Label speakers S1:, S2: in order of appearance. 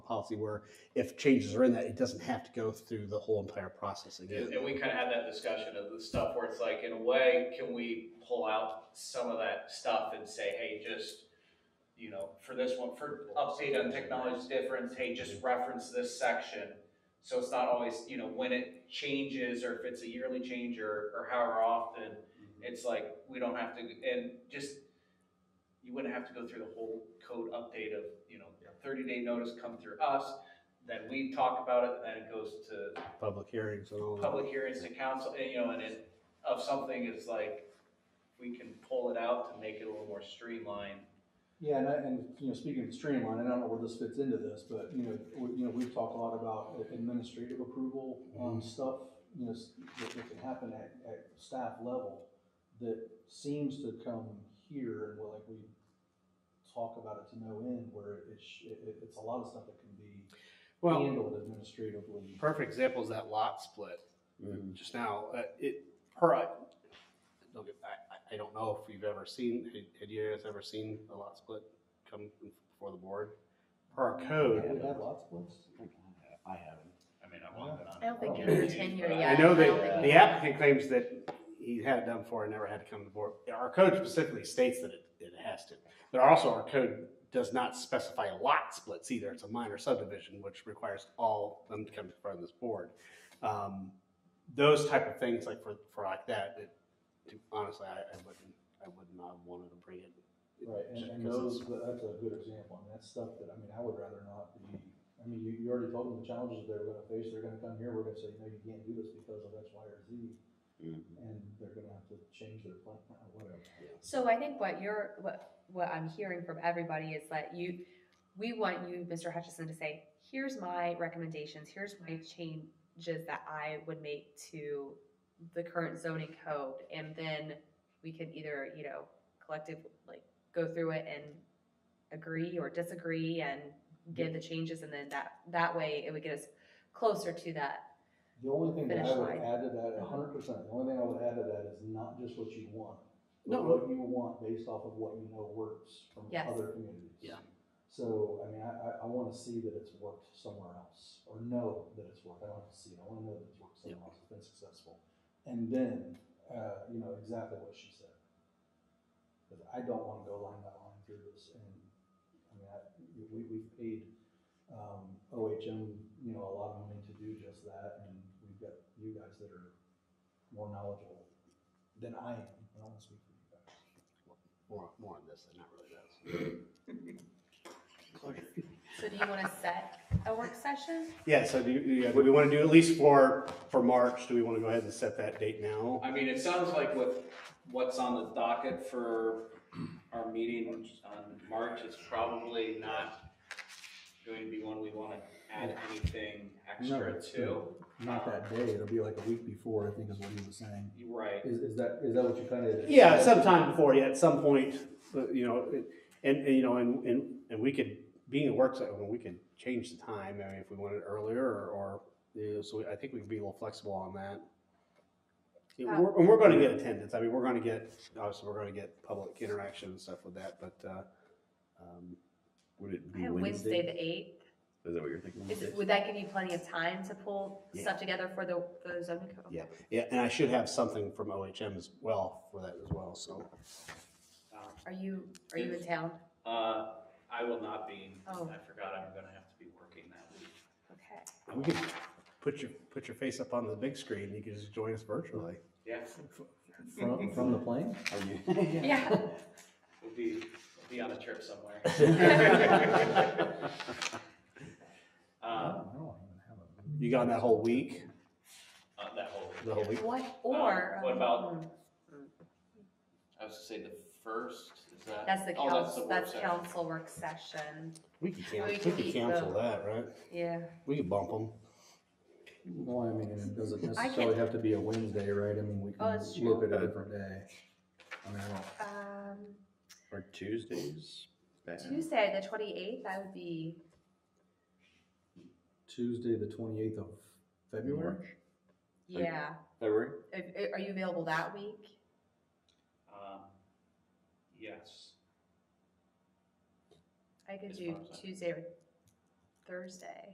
S1: policy where if changes are in that, it doesn't have to go through the whole entire process again.
S2: And, and we kind of had that discussion of the stuff where it's like, in a way, can we pull out some of that stuff and say, hey, just, you know, for this one, for update on technology difference, hey, just reference this section. So it's not always, you know, when it changes or if it's a yearly change or, or however often, it's like, we don't have to, and just, you wouldn't have to go through the whole code update of, you know, thirty day notice come through us, then we talk about it, then it goes to
S1: Public hearings and all that.
S2: public hearings to council, and, you know, and it, of something is like, we can pull it out to make it a little more streamlined.
S3: Yeah, and, I- and, you know, speaking of streamline, and I don't know where this fits into this, but, you know, we, you know, we've talked a lot about administrative approval,
S4: Mm-hmm.
S3: um, stuff, you know, s- that, that can happen at, at staff level that seems to come here, and we're like, we talk about it to no end, where it's, it, it's a lot of stuff that can be
S4: Well,
S3: handled administratively.
S4: perfect example is that lot split
S1: Mhm.
S4: just now. Uh, it per I, don't get, I, I- I don't know if you've ever seen had- had you guys ever seen a lot split come before the board per our
S3: We
S4: code.
S3: have lots of lists.
S5: I haven't.
S2: I mean, I want that on.
S6: I don't think you're tenure
S4: Oh. I
S6: yet.
S4: know
S6: I don't
S4: that
S6: think
S4: the
S6: you-
S4: applicant claims that he had it done before and never had to come to the board. Our code specifically states that it, it has to. But also our code does not specify lot splits either. It's a minor subdivision, which requires all of them to come to front of this board. Um, Those type of things like for, for like that, it, honestly, I, I wouldn't, I would not have wanted to bring it.
S3: Right, and,
S4: Just
S3: and
S4: because
S3: those,
S4: it's-
S3: that's a good example, I mean, that's stuff that, I mean, I would rather not be, I mean, you, you already told them the challenges they're gonna face, they're gonna come here, we're gonna say, no, you can't do this because of X, Y, or Z, and they're gonna have to change their plan, or whatever.
S6: So I think what you're, what, what I'm hearing from everybody is that you, we want you, Mr. Hutchison, to say, here's my recommendations, here's my changes that I would make to the current zoning code, and then we can either, you know, collective, like, go through it and agree or disagree and give the changes, and then that, that way it would get us closer to that.
S3: The only thing that I
S6: Finish
S3: would
S6: line. Uh-huh.
S3: add to that, a hundred percent, the only thing I would add to that is not just what you want, but
S4: No.
S3: what you want based off of what you know works from
S6: Yes.
S3: other communities.
S4: Yeah.
S3: So, I mean, I, I, I wanna see that it's worked somewhere else, or know that it's worked, I don't have to see it, I wanna know that it's worked somewhere else, it's been successful. And then, uh, you know, exactly what she said. Cause I don't wanna go line by line through this, and, I mean, I, we, we've paid um, OHM, you know, a lot of money to do just that, and we've got you guys that are more knowledgeable than I am, I don't wanna speak for you guys.
S4: More, more on this than not really does.
S6: So do you wanna set a work session?
S4: Yeah, so do you, do you- do we want to do at least for, for March? Do we want to go ahead and set that date now?
S2: I mean, it sounds like with what's on the docket for our meeting on March, it's probably not going to be one we want to add anything
S3: No.
S2: extra to.
S3: Not that day, it'll be like a week before, I think is what he was saying.
S2: You're Right.
S3: Is, is that, is that what you kind of?
S4: Yeah, sometime before, yeah, at some point, but, you know, it- and, and, you know, and, and, and we could, being a work session, we could change the time, I mean, if we wanted earlier, or, or, you know, so I think we can be a little flexible on that. Yeah,
S6: Uh,
S4: we're- And we're gonna get attendance, I mean, we're gonna get, obviously, we're gonna get public interaction and stuff with that, but, uh, um,
S5: Would it
S6: I
S5: be
S6: have Wednesday, the eighth.
S5: Is that what you're thinking?
S6: Is, it- would that give you plenty of time to pull
S4: Yeah.
S6: stuff together for the, for the zoning code?
S4: Yeah. yeah, and I should have something from OHM as well for that as well, so.
S2: Um,
S6: Are you, are you in town?
S2: Uh, I will not be, I
S6: Oh.
S2: forgot I'm going to have to be working that week.
S6: Okay.
S4: We could put your, put your face up on the big screen, you could just join us virtually.
S2: Yeah.
S3: From, from the plane?
S6: Yeah.
S2: We'll be, we'll be on a trip somewhere.
S6: Uh,
S2: Um,
S3: I don't even have a.
S4: You got that whole week,
S2: uh, that whole.
S4: the whole week?
S6: What, or?
S2: Uh, what about-
S6: Mm,
S2: I was to say the first, is that?
S6: That's the
S2: oh,
S6: council,
S2: work
S6: that's
S2: session.
S6: council work session,
S4: We could
S6: We
S4: cancel,
S6: could
S4: we could
S6: keep
S4: cancel
S6: the-
S4: that, right?
S6: yeah.
S4: We could bump them.
S3: Well, I mean, and it doesn't
S6: I
S3: necessarily
S6: can-
S3: have to be a Wednesday, right? I mean, we can
S6: that's true.
S3: look at a different day. I mean, I don't,
S6: Um,
S5: Or Tuesdays? bad?
S6: Tuesday, the twenty-eighth, I would be,
S3: Tuesday, the twenty-eighth of February?
S6: yeah. eh,
S5: February?
S6: Are, are you available that week?
S2: Um, Yes.
S6: I could
S2: As
S6: do
S2: far as I-
S6: Tuesday or Thursday.